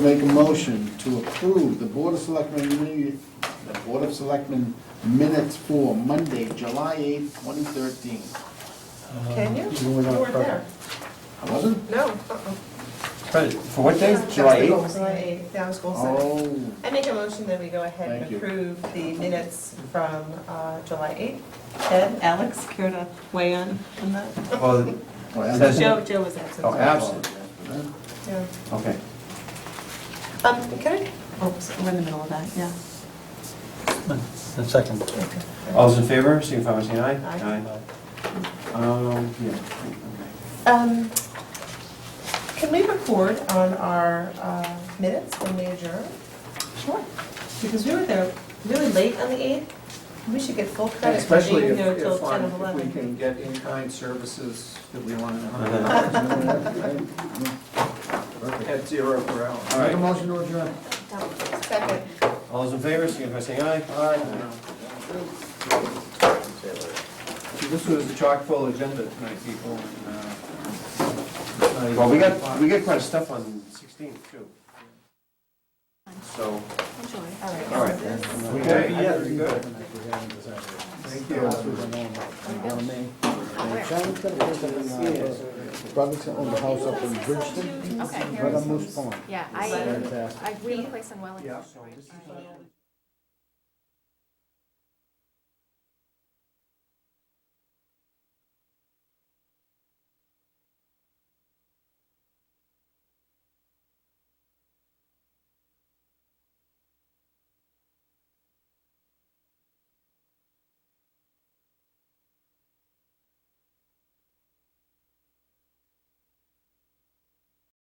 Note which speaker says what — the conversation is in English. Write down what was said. Speaker 1: Make a motion to approve the Board of Selectmen, mini- the Board of Selectmen minutes for Monday, July eighth, twenty thirteen.
Speaker 2: Can you?
Speaker 3: You were not
Speaker 2: weren't there.
Speaker 1: I wasn't?
Speaker 2: No. uh-uh.
Speaker 3: Right, For what day?
Speaker 2: That was
Speaker 3: July
Speaker 2: the
Speaker 3: 8th?
Speaker 2: goal, July eighth, that was goal setting.
Speaker 1: Oh,
Speaker 2: I make a motion that we go ahead
Speaker 1: Thank
Speaker 2: and
Speaker 1: you.
Speaker 2: approve the minutes from uh, July eighth. Ed, Alex, care to weigh on on that?
Speaker 3: Well,
Speaker 1: oh, yeah.
Speaker 3: Says-
Speaker 2: Joe, Joe was absent.
Speaker 3: Oh, absent.
Speaker 2: Yeah.
Speaker 3: Okay.
Speaker 2: Um, can I, oops, we're in the middle of that, yeah.
Speaker 4: The second.
Speaker 2: Okay.
Speaker 3: All's in favor, signify by saying aye.
Speaker 2: Aye.
Speaker 3: Aye. Um, yeah. okay.
Speaker 2: Um, Can we record on our uh, minutes when we adjourn? Sure. Because we were there really late on the 8th. We should get full credit for
Speaker 5: Especially
Speaker 2: being
Speaker 5: if,
Speaker 2: there till
Speaker 5: if
Speaker 2: 10
Speaker 5: on-
Speaker 2: of
Speaker 5: if we
Speaker 2: 11.
Speaker 5: can get in-kind services that we want
Speaker 3: Uh-huh.
Speaker 5: at zero per hour.
Speaker 3: All
Speaker 1: Make a
Speaker 3: right,
Speaker 1: motion to adjourn.
Speaker 2: Second.
Speaker 3: all's in favor, signify by saying aye. Aye.
Speaker 5: This was a chock full agenda tonight, people. and, uh, it's not even-
Speaker 3: Well, we got, we got quite a stuff on 16th too. So,
Speaker 2: All right.
Speaker 3: all right.
Speaker 5: Okay, yeah, you're good. Thank you.
Speaker 6: Oh,
Speaker 1: Brothers owned the house up in Bridgeton,
Speaker 6: Okay,
Speaker 1: right on
Speaker 6: here,
Speaker 1: Moose Pond.
Speaker 6: yeah, I,
Speaker 1: Fantastic.
Speaker 6: I, we have a place in Wellington.
Speaker 5: Yeah,
Speaker 6: right?
Speaker 5: so this is-
Speaker 6: I-